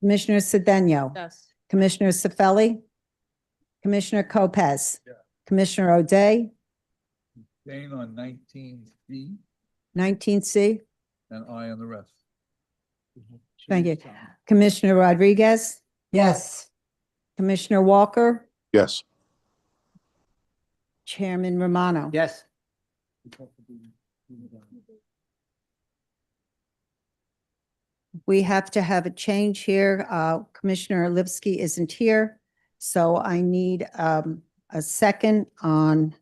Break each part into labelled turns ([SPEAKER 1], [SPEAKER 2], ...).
[SPEAKER 1] Commissioner Cedeno?
[SPEAKER 2] Yes.
[SPEAKER 1] Commissioner Cefali? Commissioner Lopez?
[SPEAKER 3] Yeah.
[SPEAKER 1] Commissioner O'Day,
[SPEAKER 3] Dane on nineteen B
[SPEAKER 1] nineteen C?
[SPEAKER 3] and I on the rest.
[SPEAKER 1] Thank you. Commissioner Rodriguez?
[SPEAKER 4] yes,
[SPEAKER 1] Commissioner Walker?
[SPEAKER 5] yes,
[SPEAKER 1] Chairman Romano?
[SPEAKER 6] yes,
[SPEAKER 1] We have to have a change here. Uh, Commissioner Lipsky isn't here, so I need um, a second on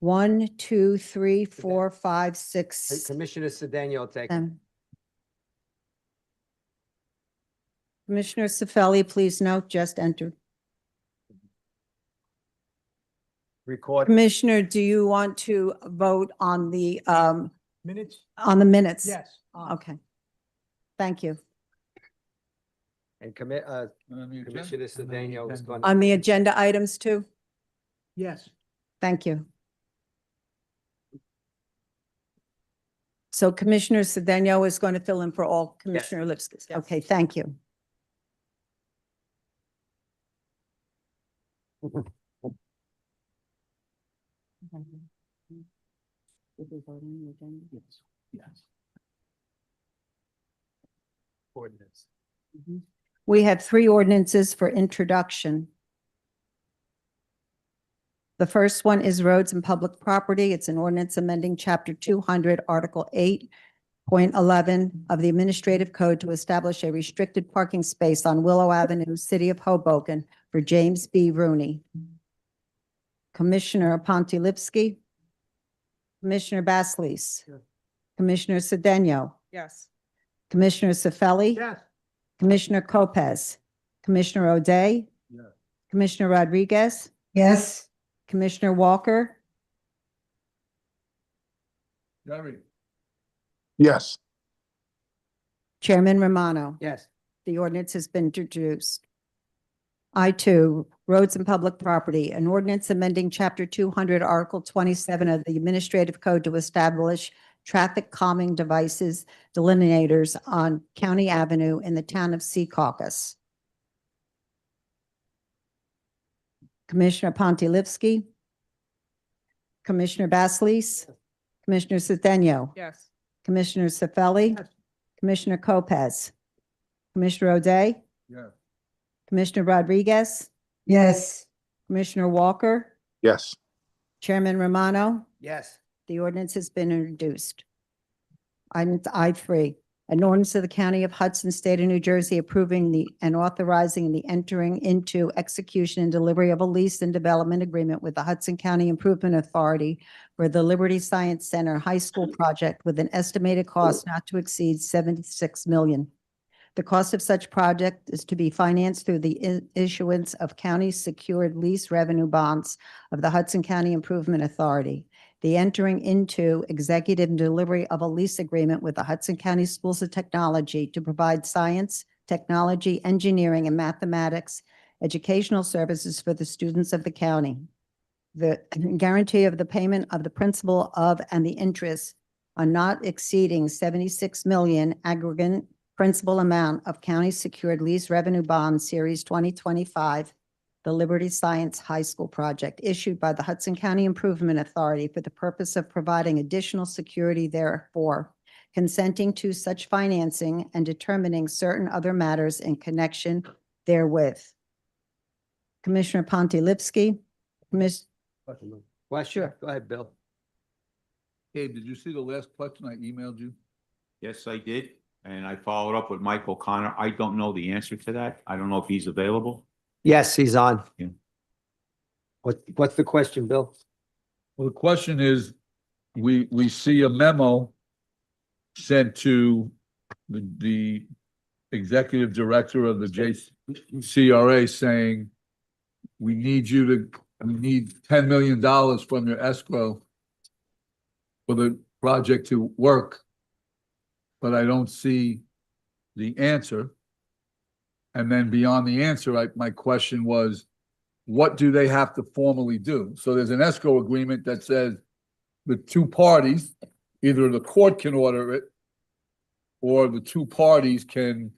[SPEAKER 1] one, two, three, four, five, six.
[SPEAKER 6] Commissioner Sedano will take. it.
[SPEAKER 1] seven. Commissioner Cefali, please note, just entered.
[SPEAKER 6] Record.
[SPEAKER 1] Commissioner, do you want to vote on the, um,
[SPEAKER 3] Minutes?
[SPEAKER 1] on the minutes?
[SPEAKER 3] Yes.
[SPEAKER 1] Okay. Thank you.
[SPEAKER 6] And commit, uh, Commissioner Sedano is going.
[SPEAKER 1] On the agenda items too?
[SPEAKER 3] Yes.
[SPEAKER 1] Thank you. So Commissioner Cedeno is going to fill in for all Commissioner Lipsky.
[SPEAKER 2] Yes.
[SPEAKER 1] Okay, thank you.
[SPEAKER 3] Yes.
[SPEAKER 6] Ordinance.
[SPEAKER 1] We have three ordinances for introduction. The first one is roads and public property. It's an ordinance amending Chapter 200, Article 8.11 of the Administrative Code to establish a restricted parking space on Willow Avenue, City of Hoboken, for James B. Rooney. Commissioner Pontilivski. Commissioner Basleys.
[SPEAKER 6] Here.
[SPEAKER 1] Commissioner Cedeno.
[SPEAKER 2] Yes.
[SPEAKER 1] Commissioner Cefali.
[SPEAKER 6] Yes.
[SPEAKER 1] Commissioner Lopez, Commissioner O'Day.
[SPEAKER 3] Yes.
[SPEAKER 1] Commissioner Rodriguez,
[SPEAKER 4] yes,
[SPEAKER 1] Commissioner Walker,
[SPEAKER 3] Jerry,
[SPEAKER 5] yes,
[SPEAKER 1] Chairman Romano.
[SPEAKER 6] Yes,
[SPEAKER 1] The ordinance has been introduced. I two, roads and public property, an ordinance amending chapter two hundred, article twenty-seven of the administrative code to establish traffic calming devices delineators on County Avenue in the town of Secaucus. Commissioner Pontilivski. Commissioner Basleys. Commissioner Cedeno.
[SPEAKER 2] Yes.
[SPEAKER 1] Commissioner Cefali. Commissioner Lopez. Commissioner O'Day.
[SPEAKER 3] yes.
[SPEAKER 1] Commissioner Rodriguez.
[SPEAKER 4] yes,
[SPEAKER 1] Commissioner Walker.
[SPEAKER 5] yes,
[SPEAKER 1] Chairman Romano.
[SPEAKER 6] yes,
[SPEAKER 1] The ordinance has been introduced. Item I three, an ordinance of the County of Hudson, State of New Jersey approving the and authorizing the entering into execution and delivery of a lease and development agreement with the Hudson County Improvement Authority for the Liberty Science Center High School project with an estimated cost not to exceed seventy-six million. The cost of such project is to be financed through the i- issuance of county secured lease revenue bonds of the Hudson County Improvement Authority the entering into executive and delivery of a lease agreement with the Hudson County Schools of Technology to provide science, technology, engineering, and mathematics educational services for the students of the county. The guarantee of the payment of the principal of and the interest on not exceeding seventy-six million aggregate principal amount of county secured lease revenue bond series twenty twenty-five the Liberty Science High School project issued by the Hudson County Improvement Authority for the purpose of providing additional security therefore, consenting to such financing and determining certain other matters in connection therewith. Commissioner Pontilivski, Commis-
[SPEAKER 6] question, go ahead, Bill.
[SPEAKER 3] Dave, did you see the last question I emailed you?
[SPEAKER 7] Yes, I did, and I followed up with Mike O'Connor. I don't know the answer to that. I don't know if he's available.
[SPEAKER 6] Yes, he's on.
[SPEAKER 7] Yeah.
[SPEAKER 6] What, what's the question, Bill?
[SPEAKER 3] Well, the question is, we, we see a memo sent to the, the executive director of the JCRA saying, we need you to, we need ten million dollars from your escrow for the project to work. But I don't see the answer. And then beyond the answer, I, my question was, what do they have to formally do? So there's an escrow agreement that says the two parties, either the court can order it or the two parties can